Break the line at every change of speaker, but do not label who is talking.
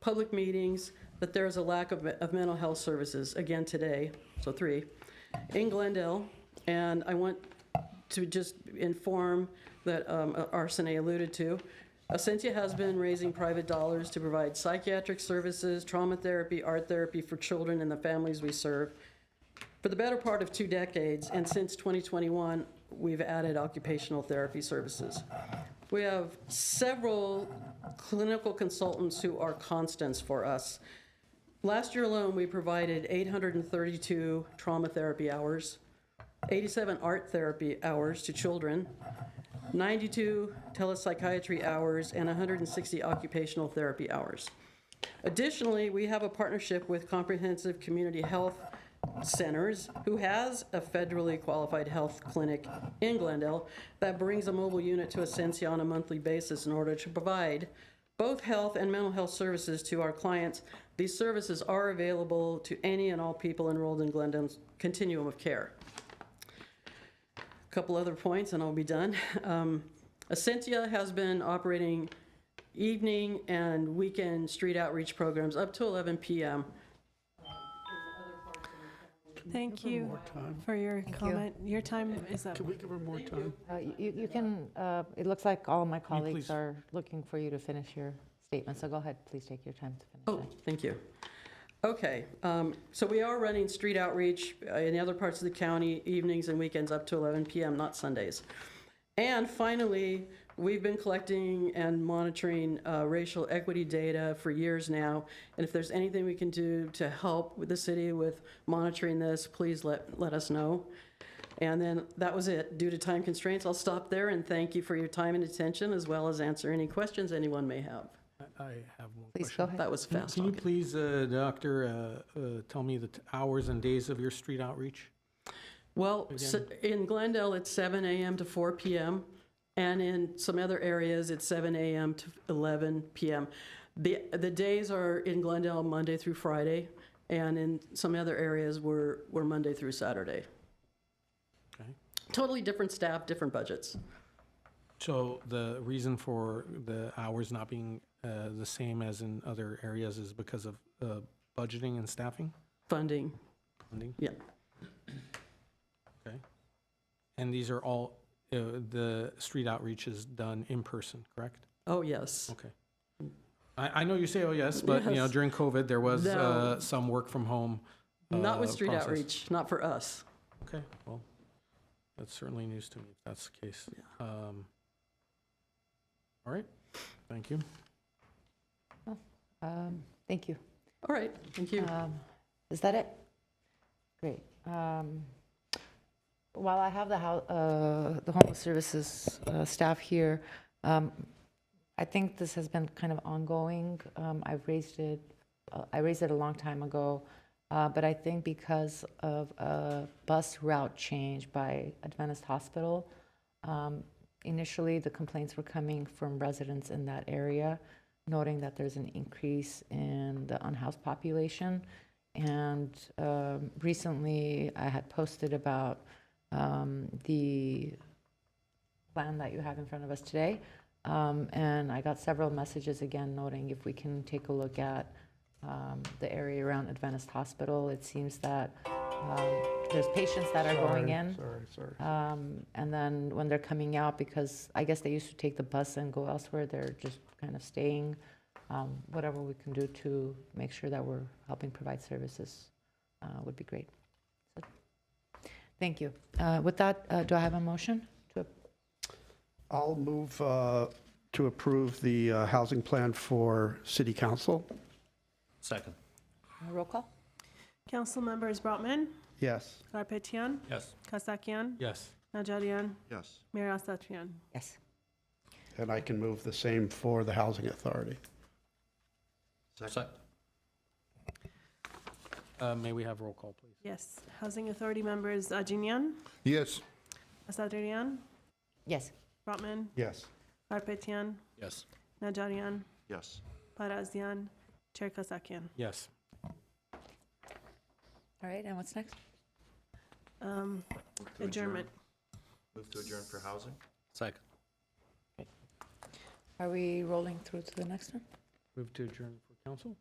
public meetings, that there is a lack of, of mental health services, again today, so three, in Glendale. And I want to just inform that um, Arsene alluded to, Ascensia has been raising private dollars to provide psychiatric services, trauma therapy, art therapy for children and the families we serve for the better part of two decades, and since 2021, we've added occupational therapy services. We have several clinical consultants who are constants for us. Last year alone, we provided 832 trauma therapy hours, 87 art therapy hours to children, 92 telepsychiatry hours, and 160 occupational therapy hours. Additionally, we have a partnership with Comprehensive Community Health Centers, who has a federally qualified health clinic in Glendale that brings a mobile unit to Ascensia on a monthly basis in order to provide both health and mental health services to our clients. These services are available to any and all people enrolled in Glendale's continuum of care. Couple other points, and I'll be done. Um, Ascensia has been operating evening and weekend street outreach programs up to 11 p.m.
Thank you for your comment. Your time is up.
Can we give her more time?
Uh, y- You you can, uh, it looks like all my colleagues
please.
are looking for you to finish your statement, so go ahead, please take your time to finish.
Oh, thank you. Okay, um, so we are running street outreach uh, in the other parts of the county evenings and weekends up to 11 p.m., not Sundays. And finally, we've been collecting and monitoring uh, racial equity data for years now. And if there's anything we can do to help with the city with monitoring this, please let, let us know. And then that was it. Due to time constraints, I'll stop there and thank you for your time and attention, as well as answer any questions anyone may have.
I- I have one
Please
question.
go ahead.
That was
Can-
fast
Can you
talking.
please, uh, Doctor, uh, uh, tell me the t- hours and days of your street outreach?
Well, s- in Glendale, it's 7 a.m. to 4 p.m., and in some other areas, it's 7 a.m. to 11 p.m. The, the days are in Glendale Monday through Friday, and in some other areas, we're, we're Monday through Saturday.
Okay.
Totally different staff, different budgets.
So the reason for the hours not being uh, the same as in other areas is because of uh, budgeting and staffing?
Funding,
funding?
yeah.
Okay. And these are all, uh, the street outreach is done in person, correct?
Oh, yes.
Okay. I, I know you say, oh, yes, but, you know,
Yes.
during COVID, there was
No.
uh, some work from home.
Not with
uh,
street
process.
outreach, not for us.
Okay, well, that's certainly news to me, if that's the case. Um, All right, thank you.
Um, Thank you.
All right, thank you.
Um, Is that it? Great. Um, While I have the hou- uh, the homeless services uh, staff here, um, I think this has been kind of ongoing. Um, I've raised it, uh, I raised it a long time ago, uh, but I think because of a bus route change by Adventist Hospital, um, initially, the complaints were coming from residents in that area, noting that there's an increase in the unhoused population. And um, recently, I had posted about um, the plan that you have in front of us today. Um, And I got several messages again noting if we can take a look at um, the area around Adventist Hospital. It seems that um, there's patients that are going in.
Sorry, sorry.
Um, and then when they're coming out, because I guess they used to take the bus and go elsewhere, they're just kind of staying. Um, whatever we can do to make sure that we're helping provide services uh, would be great. So, thank you. Uh, with that, uh, do I have a motion? To
I'll move uh, to approve the uh, housing plan for city council.
Second.
a roll call?
Council members Brotman,
Yes.
Garpetian,
Yes.
Kasakian,
Yes,
Najarian,
Yes.
Mayor Asatryan.
Yes.
And I can move the same for the housing authority.
Second.
Uh, may we have roll call, please?
Yes. Housing Authority members Ajinian,
Yes.
Asatryan,
Yes.
Brotman,
Yes.
Garpetian,
Yes.
Najarian,
Yes.
Parazian, Chair Kasakian.
Yes.
All right, and what's next?
Um,
To adjourn.
Adjournment.
Move to adjourn for housing? Second.
Are we rolling through to the next one?
Move to adjourn for council?